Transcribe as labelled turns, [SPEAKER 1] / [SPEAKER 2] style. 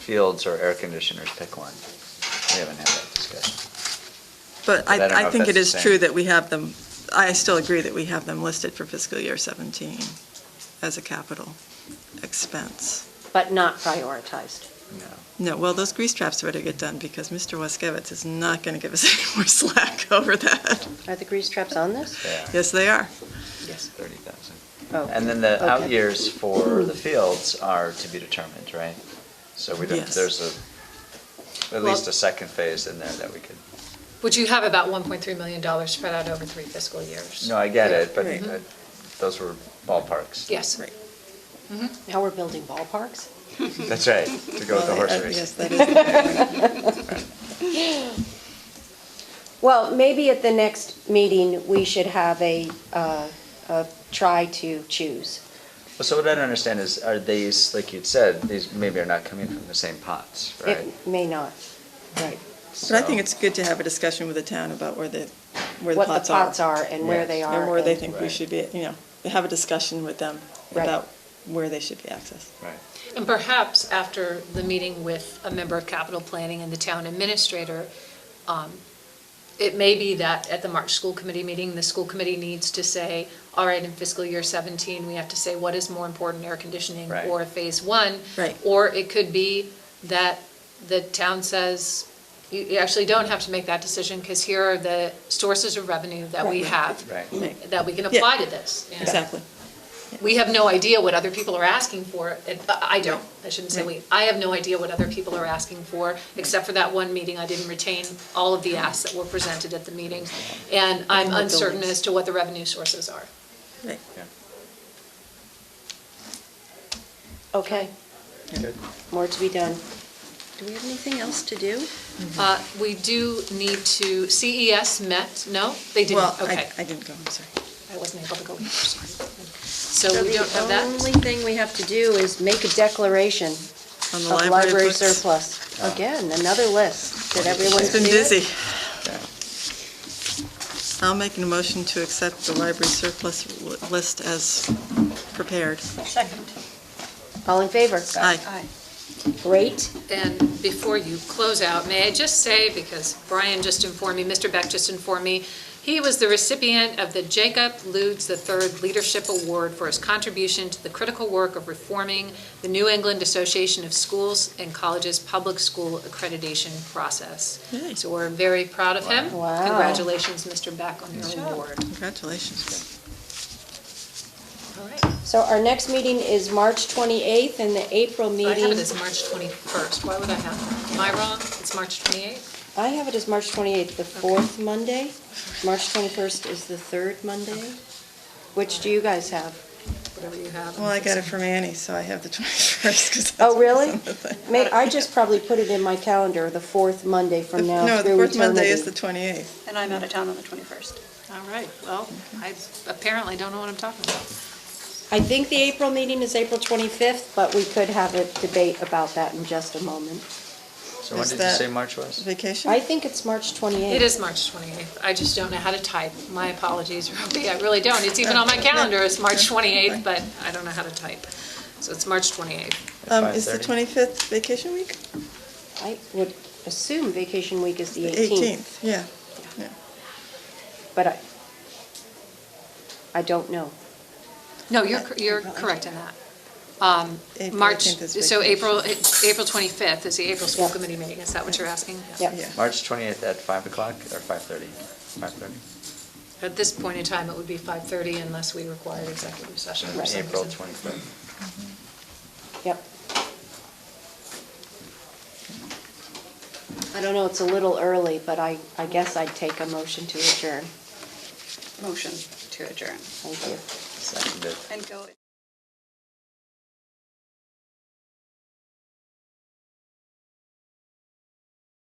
[SPEAKER 1] fields or air conditioners, pick one. We haven't had that discussion.
[SPEAKER 2] But
[SPEAKER 1] But I don't
[SPEAKER 2] I,
[SPEAKER 1] know
[SPEAKER 2] I
[SPEAKER 1] if
[SPEAKER 2] think it
[SPEAKER 1] that's
[SPEAKER 2] is
[SPEAKER 1] the
[SPEAKER 2] true
[SPEAKER 1] same.
[SPEAKER 2] that we have them, I still agree that we have them listed for fiscal year 17 as a capital expense.
[SPEAKER 3] but not prioritized.
[SPEAKER 1] No.
[SPEAKER 2] No, well, those grease traps better get done because Mr. Waskevitz is not going to give us any more slack over that.
[SPEAKER 3] Are the grease traps on this?
[SPEAKER 1] Yeah,
[SPEAKER 2] Yes, they are.
[SPEAKER 3] Yes.
[SPEAKER 1] thirty thousand.
[SPEAKER 3] Oh,
[SPEAKER 1] And then the out
[SPEAKER 3] okay.
[SPEAKER 1] years for the fields are to be determined, right? So we don't,
[SPEAKER 2] Yes.
[SPEAKER 1] there's a, at least a second phase in there that we could,
[SPEAKER 4] Which you have about $1.3 million spread out over three fiscal years.
[SPEAKER 1] no, I get it, but
[SPEAKER 2] Right.
[SPEAKER 1] uh, those were ballparks.
[SPEAKER 4] Yes.
[SPEAKER 2] Right.
[SPEAKER 3] Now we're building ballparks?
[SPEAKER 1] That's right, to go with the horse
[SPEAKER 2] Well, I- I-
[SPEAKER 1] race.
[SPEAKER 2] Yes, that is.
[SPEAKER 3] Well, maybe at the next meeting, we should have a, uh, a try to choose.
[SPEAKER 1] Well, so what I don't understand is, are these, like you'd said, these maybe are not coming from the same pots, right?
[SPEAKER 3] It may not, right.
[SPEAKER 2] But I think it's good to have a discussion with the town about where the, where the
[SPEAKER 3] What the
[SPEAKER 2] pots are.
[SPEAKER 3] pots are and where they are.
[SPEAKER 2] And where they
[SPEAKER 3] and-
[SPEAKER 2] think we
[SPEAKER 1] Right.
[SPEAKER 2] should be, you know, have a discussion with them
[SPEAKER 3] Right.
[SPEAKER 2] about where they should be accessed.
[SPEAKER 1] Right.
[SPEAKER 4] And perhaps after the meeting with a member of capital planning and the town administrator, um, it may be that at the March school committee meeting, the school committee needs to say, all right, in fiscal year 17, we have to say what is more important, air conditioning
[SPEAKER 1] Right.
[SPEAKER 4] or phase one?
[SPEAKER 2] Right.
[SPEAKER 4] Or it could be that the town says, you you actually don't have to make that decision because here are the sources of revenue that we
[SPEAKER 2] Right.
[SPEAKER 4] have.
[SPEAKER 1] Right.
[SPEAKER 2] Right.
[SPEAKER 4] That we can
[SPEAKER 2] Yeah.
[SPEAKER 4] apply to this. And-
[SPEAKER 2] Exactly.
[SPEAKER 4] we have no idea what other people are asking for, and uh, I I don't, I shouldn't say we, I have no idea what other people are asking for, except for that one meeting, I didn't retain all of the asks that were presented at the meeting, and
[SPEAKER 2] And
[SPEAKER 4] I'm
[SPEAKER 2] the
[SPEAKER 4] uncertain
[SPEAKER 2] buildings.
[SPEAKER 4] as to what the revenue sources are.
[SPEAKER 2] Right.
[SPEAKER 1] Yeah.
[SPEAKER 3] Okay,
[SPEAKER 1] Good.
[SPEAKER 3] more to be done.
[SPEAKER 5] Do we have anything else to do?
[SPEAKER 2] Mm-hmm.
[SPEAKER 4] Uh, We do need to, CES met, no, they
[SPEAKER 2] Well,
[SPEAKER 4] didn't, okay.
[SPEAKER 2] I, I didn't go, I'm sorry.
[SPEAKER 4] I wasn't able to go, so we don't have
[SPEAKER 5] The only
[SPEAKER 4] that.
[SPEAKER 5] thing we have to do is
[SPEAKER 3] Make a declaration
[SPEAKER 2] On the
[SPEAKER 3] of
[SPEAKER 2] library
[SPEAKER 3] library
[SPEAKER 2] books.
[SPEAKER 3] surplus. Again, another list. Did everyone
[SPEAKER 2] It's been
[SPEAKER 3] see it?
[SPEAKER 2] busy.
[SPEAKER 1] Yeah.
[SPEAKER 2] I'll make a motion to accept the library surplus li- list as prepared.
[SPEAKER 3] All in favor?
[SPEAKER 2] Aye.
[SPEAKER 3] Great.
[SPEAKER 4] And before you close out, may I just say, because Brian just informed me, Mr. Beck just informed me, he was the recipient of the Jacob Ludes III Leadership Award for his contribution to the critical work of reforming the New England Association of Schools and Colleges Public School Accreditation Process.
[SPEAKER 2] Yay.
[SPEAKER 4] So we're very proud of him.
[SPEAKER 3] Wow.
[SPEAKER 4] Congratulations, Mr. Beck, on your award.
[SPEAKER 2] Congratulations.
[SPEAKER 4] All right.
[SPEAKER 3] So our next meeting is March 28th and the April
[SPEAKER 4] I have it
[SPEAKER 3] meeting.
[SPEAKER 4] as March 21st. Why would I have that? Am I wrong? It's March 28th?
[SPEAKER 3] I have it as March 28th, the fourth Monday. March 21st is the third Monday. Which do you guys have?
[SPEAKER 4] Whatever you have.
[SPEAKER 2] Well, I got it from Annie, so I have the 21st. 'cause
[SPEAKER 3] Oh,
[SPEAKER 2] that's
[SPEAKER 3] really?
[SPEAKER 2] the thing.
[SPEAKER 3] May, I just probably put it in my calendar, the fourth Monday from now
[SPEAKER 2] No, the
[SPEAKER 3] through
[SPEAKER 2] fourth Monday is the
[SPEAKER 3] eternity.
[SPEAKER 2] 28th.
[SPEAKER 5] And I'm out of town on the 21st.
[SPEAKER 4] All right, well, I apparently don't know what I'm talking about.
[SPEAKER 3] I think the April meeting is April 25th, but we could have a debate about that in just a moment.
[SPEAKER 1] So when
[SPEAKER 2] Is
[SPEAKER 1] did you say
[SPEAKER 2] that-
[SPEAKER 1] March was?
[SPEAKER 2] Vacation?
[SPEAKER 3] I think it's March 28th.
[SPEAKER 4] It is March 28th. I just don't know how to type. My apologies, Robbie, I really don't. It's even on my calendar, it's March 28th, but I don't know how to type. So it's March 28th.
[SPEAKER 2] Um, is the
[SPEAKER 1] 5:30?
[SPEAKER 2] 25th vacation week?
[SPEAKER 3] I would assume vacation week is the 18th,
[SPEAKER 2] 18th, yeah. yeah.
[SPEAKER 3] but I, I don't know.
[SPEAKER 4] No, you're, cor- you're correct in that. Um,
[SPEAKER 2] April
[SPEAKER 4] March,
[SPEAKER 2] 18th is
[SPEAKER 4] so
[SPEAKER 2] vacation.
[SPEAKER 4] April, April 25th is the April School
[SPEAKER 3] Yeah.
[SPEAKER 4] Committee meeting, is that what you're asking?
[SPEAKER 3] Yeah.
[SPEAKER 2] Yeah.
[SPEAKER 1] March twenty-eighth at five o'clock or five thirty? Five thirty.
[SPEAKER 4] At this point in time, it would be 5:30 unless we required executive session for some
[SPEAKER 1] April
[SPEAKER 4] reason.
[SPEAKER 1] twenty-fifth.
[SPEAKER 3] Yep. I don't know, it's a little early, but I, I guess I'd take a motion to adjourn.
[SPEAKER 5] Motion to adjourn
[SPEAKER 3] Thank you.
[SPEAKER 1] Seconded.
[SPEAKER 5] and go.